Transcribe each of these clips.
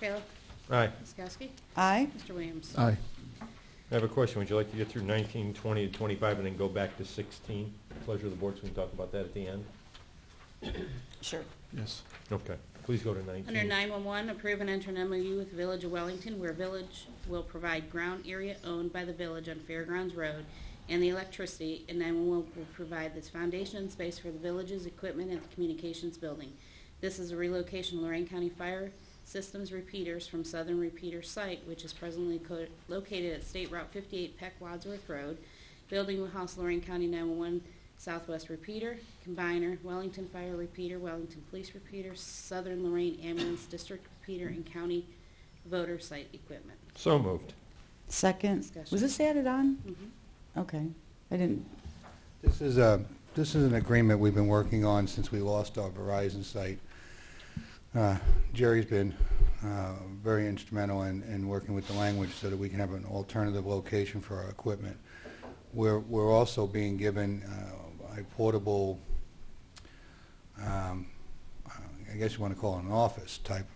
Kayla. Aye. Ms. Kowski. Aye. Mr. Williams. Aye. I have a question. Would you like to get through 19, 20, and 25, and then go back to 16? Pleasure of the board, so we can talk about that at the end. Sure. Yes. Okay, please go to 19. Under 911, approve and enter an MOU with Village of Wellington where Village will provide ground area owned by the Village on Fairgrounds Road and the electricity, and 911 will provide this foundation and space for the Village's equipment at the Communications Building. This is a relocation of Lorraine County Fire Systems repeaters from Southern Repeater Site, which is presently co- located at State Route 58 Peck Wadsworth Road. Building will house Lorraine County 911 Southwest Repeater, Combiner, Wellington Fire Repeater, Wellington Police Repeater, Southern Lorraine Ambulance District Repeater, and County Voter Site Equipment. So moved. Second. Discussion. Was this added on? Mhm. Okay. I didn't, This is a, this is an agreement we've been working on since we lost our Verizon site. Uh, Jerry's been uh, very instrumental in, in working with the language so that we can have an alternative location for our equipment. We're, we're also being given uh, a portable, um, I guess you want to call it an office type,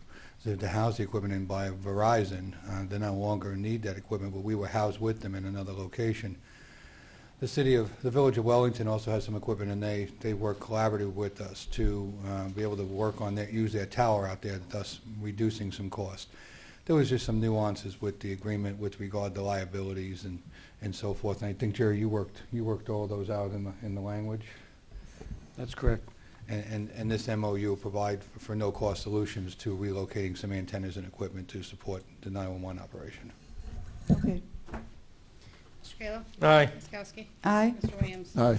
to to house the equipment in by Verizon. Uh, They no longer need that equipment, but we were housed with them in another location. The city of, the village of Wellington also has some equipment, and they, they work collaborative with us to uh, be able to work on that, use their tower out there, thus reducing some cost. There was just some nuances with the agreement with regard to liabilities and, and so forth, and I think, Jerry, you worked, you worked all those out in the, in the language? That's correct. And, and, and this MOU will provide for- for no-cost solutions to relocating some antennas and equipment to support the 911 operation. okay. Mr. Kayla. Aye. Ms. Kowski. Aye. Mr. Williams. Aye.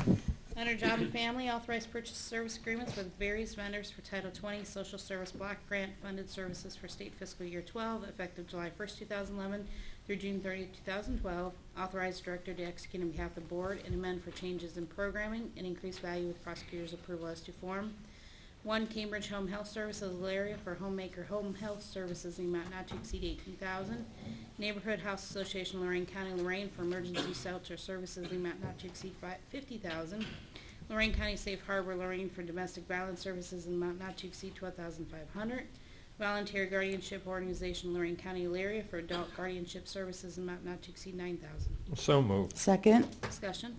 Under Job and Family, authorized purchase service agreements with various vendors for Title 20 Social Service Block Grant Funded Services for State Fiscal Year 12, effective July 1st, 2011 through June 30, 2012. Authorized director to execute on behalf of the board and amend for changes in programming and increased value with prosecutor's approval as to form. One Cambridge Home Health Services, Alaria for Homemaker Home Health Services in the amount not to exceed eighteen thousand. Neighborhood House Association Lorraine County, Lorraine for Emergency Shelter Services in the amount not to exceed fifty thousand. Lorraine County Safe Harbor, Lorraine for Domestic Violence Services in the amount not to exceed twelve thousand five hundred. Volunteer Guardianship Organization, Lorraine County, Alaria for Adult Guardianship Services in the amount not to exceed nine thousand. So moved. Second. Discussion.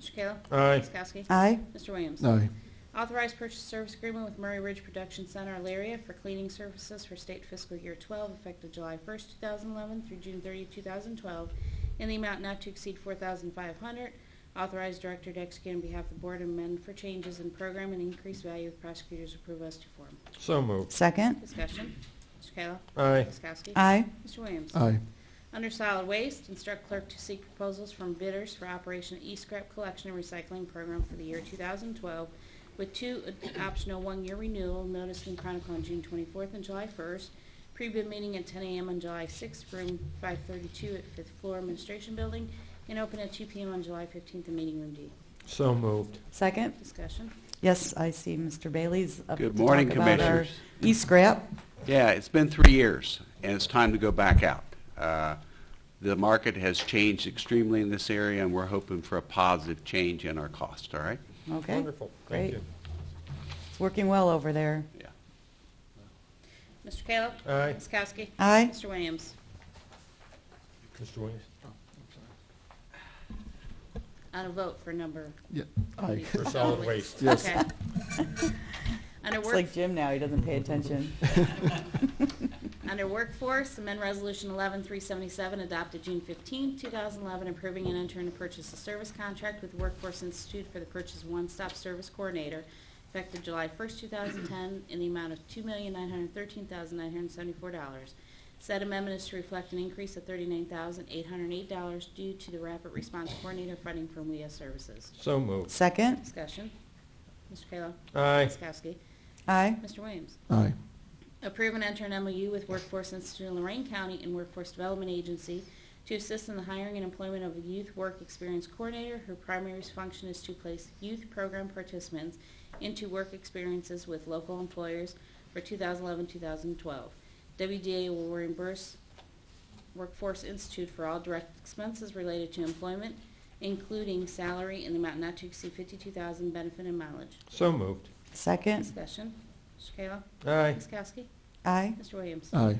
Mr. Kayla. Aye. Ms. Kowski. Aye. Mr. Williams. Aye. Authorized purchase service agreement with Murray Ridge Production Center, Alaria, for cleaning services for state fiscal year 12, effective July 1st, 2011 through June 30, 2012, in the amount not to exceed 4500 Authorized director to execute on behalf of the board and amend for changes in program and increased value with prosecutor's approval as to form. So moved. Second. Discussion. Mr. Kayla. Aye. Ms. Kowski. Aye. Mr. Williams. Aye. Under solid waste, instruct clerk to seek proposals from bidders for Operation E-Scrap Collection and Recycling Program for the year 2012, with two ad- optional one-year renewal noticed in Chronicle on June 24th and July 1st. Pre-bid meeting at 10 a.m. on July 6th, room 532 at fifth floor Administration Building, and open at 2 p.m. on July 15th in Meeting Room D. So moved. Second. Discussion. Yes, I see Mr. Bailey's up to Good morning, talk about our Commissioners. E-scrap. Yeah, it's been three years, and it's time to go back out. Uh, The market has changed extremely in this area, and we're hoping for a positive change in our cost, all right? Okay. Wonderful. Thank Great. you. It's working well over there. Yeah. Mr. Kayla. Aye. Ms. Kowski. Aye. Mr. Williams. Mr. Williams? On a vote for number. Yeah, aye. For solid waste. Yes. Okay. Under It's work. like Jim now, he doesn't pay attention. Under Workforce, amend Resolution 11377 adopted June 15, 2011, approving and entering a purchase of service contract with Workforce Institute for the purchase of one-stop service coordinator effective July 1, 2010, in the amount of $2,913,974. Said amendment is to reflect an increase of $39,808 due to the rapid response coordinator funding from WEA Services. So moved. Second. Discussion. Mr. Kayla. Aye. Ms. Kowski. Aye. Mr. Williams. Aye. Approve and enter an MOU with Workforce Institute in Lorraine County and Workforce Development Agency to assist in the hiring and employment of a youth work experience coordinator whose primary function is to place youth program participants into work experiences with local employers for 2011-2012. WDA will reimburse Workforce Institute for all direct expenses related to employment, including salary in the amount not to exceed 52000 benefit and mileage. So moved. Second. Discussion. Mr. Kayla? Aye. Ms. Kowski? Aye. Mr. Williams? Aye.